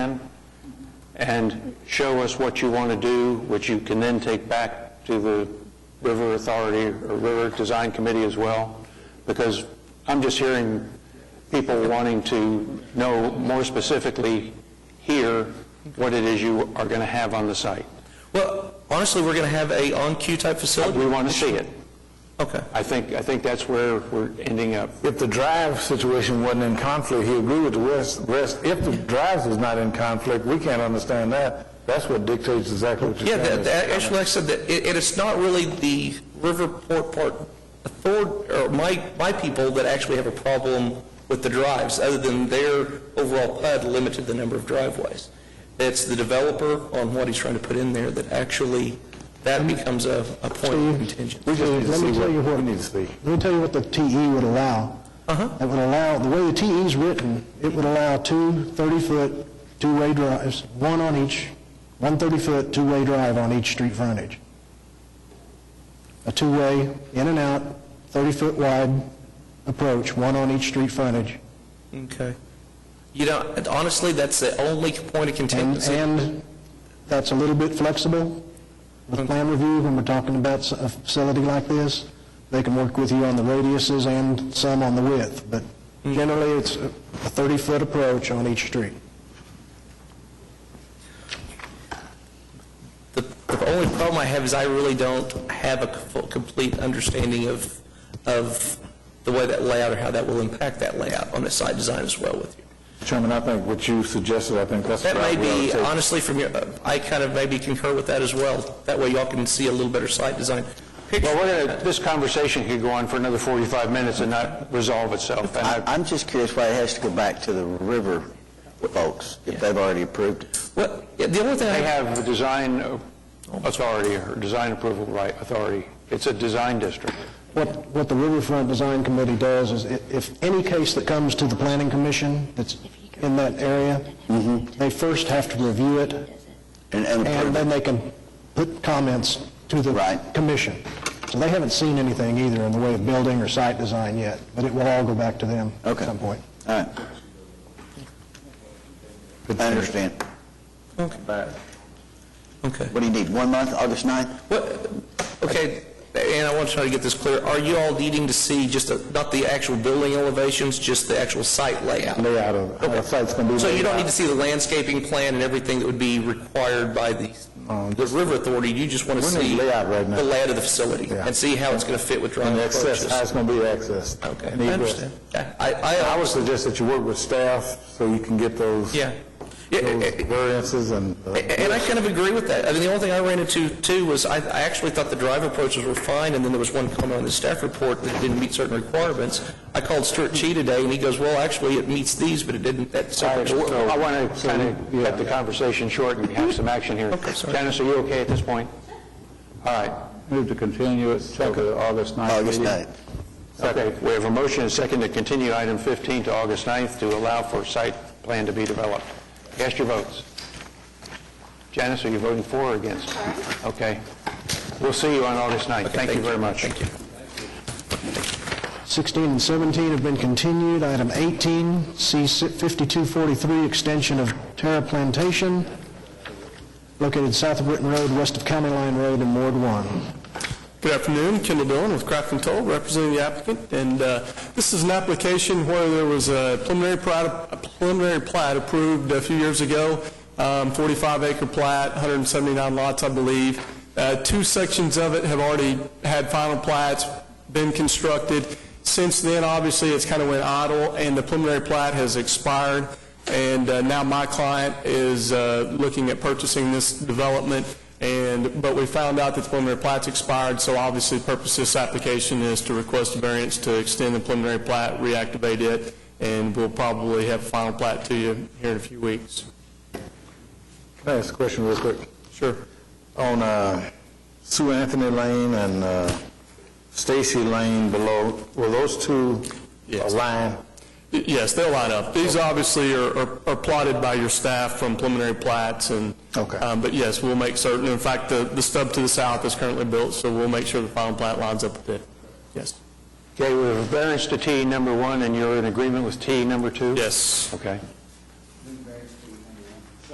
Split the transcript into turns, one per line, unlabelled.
and show us what you want to do, which you can then take back to the River Authority or River Design Committee as well? Because I'm just hearing people wanting to know more specifically here what it is you are going to have on the site.
Well, honestly, we're going to have a on-queue type facility?
We want to see it.
Okay.
I think, I think that's where we're ending up.
If the drive situation wasn't in conflict, he agreed with the rest, rest, if the drives is not in conflict, we can't understand that. That's what dictates exactly what
Yeah,
you're
that,
saying.
that- actually, like I said, that, it, it's not really the Riverport Park Authority, or my, my people that actually have a problem with the drives, other than their overall PUD limited the number of driveways. It's the developer on what he's trying to put in there that actually, that becomes a, a point of contention.
We just need to
Let me
see
tell you
what
what-
we need to see.
Let me tell you what the TE would allow. It would allow, the way the TE is written, it would allow two 30-foot, two-way drives, one on each, one 30-foot, two-way drive on each street frontage. A two-way, in and out, 30-foot wide approach, one on each street frontage.
Okay. You know, and honestly, that's the only point of
And,
contention.
and that's a little bit flexible with plan review when we're talking about s- a facility like this. They can work with you on the radiuses and some on the width, but generally, it's a 30-foot approach on each street.
The, the only problem I have is I really don't have a full- complete understanding of, of the way that layout or how that will impact that layout on the site design as well with you.
Chairman, I think what you suggested, I think that's the
That
route
may
we ought to
be,
take.
honestly, from your, I kind of maybe concur with that as well. That way y'all can see a little better site design.
Well,
picture.
we're going to, this conversation could go on for another 45 minutes and not resolve itself. And
I-
I-
I'm just curious why it has to go back to the river folks, if they've already approved it.
Well, yeah, the only thing I
They
have,
have a design authority or design approval right, authority. It's a design district.
What, what the Riverfront Design Committee does is, i- if any case that comes to the Planning Commission that's in that area, they first have to review it,
And- and
and
approve
then
it.
they can put comments to
Right.
the commission. So they haven't seen anything either in the way of building or site design yet, but it will all go back to them at
Okay.
some point.
All right. I understand.
okay.
What do you need, one month, August 9th?
What, okay, and I want to try to get this clear. Are you all needing to see just, a- not the actual building elevations, just the actual site layout?
Layout of, how the site's going to be.
So you
laid
don't need
out.
to see the landscaping plan and everything that would be required by the, um, the river authority, you just want to
We're in
see
the layout right now.
the layout of the facility
Yeah.
and see how it's going to fit with
And
driving
the access, how
approaches.
it's going to be accessed.
Okay,
And egress.
I understand. Yeah, I,
I
I,
would suggest that you work with staff so you can get those.
yeah. Yeah,
Those
eh, eh,
variances and. uh,
eh, And I kind of agree with that. I mean, the only thing I ran into too was, I, I actually thought the drive approaches were fine, and then there was one comment on the staff report that didn't meet certain requirements. I called Stuart Chi today, and he goes, well, actually, it meets these, but it didn't, that
I
separate.
want to kind of cut the conversation short and have some action here.
Okay, sorry.
Dennis, are you okay at this point? All right.
Move to continue it to the August 9th
August
meeting.
9th.
Okay, we have a motion and second to continue item 15 to August 9th to allow for site plan to be developed. Cast your votes. Janice, are you voting for or against? Okay. We'll see you on August 9th. Thank you very much.
Thank you.
16 and 17 have been continued. Item 18, C 5243, extension of Terra Plantation, located south of Britton Road, west of County Line Road in Ward 1.
Good afternoon, Kendall Dillon with Craft and Toll, representing the applicant. And uh, this is an application where there was a preliminary plat, a preliminary plat approved a few years ago, 45-acre plat, 179 lots, I believe. Uh, Two sections of it have already had final plats, been constructed. Since then, obviously, it's kind of went idle, and the preliminary plat has expired. And uh, now my client is uh, looking at purchasing this development, and, but we found out that the preliminary plat's expired, so obviously the purpose of this application is to request a variance to extend the preliminary plat, reactivate it, and we'll probably have a final plat to you here in a few weeks.
Can I ask a question real quick?
Sure.
On uh, Sue Anthony Lane and uh, Stacy Lane below, were those two
Yes.
aligned?
Y- Yes, they'll line up. These obviously are- are are plotted by your staff from preliminary plats, and,
Okay.
um, but yes, we'll make certain, in fact, the the stub to the south is currently built, so we'll make sure the final plat lines up with it. Yes.
Okay, we have a variance to T number one, and you're in agreement with T number two?
Yes.
Okay.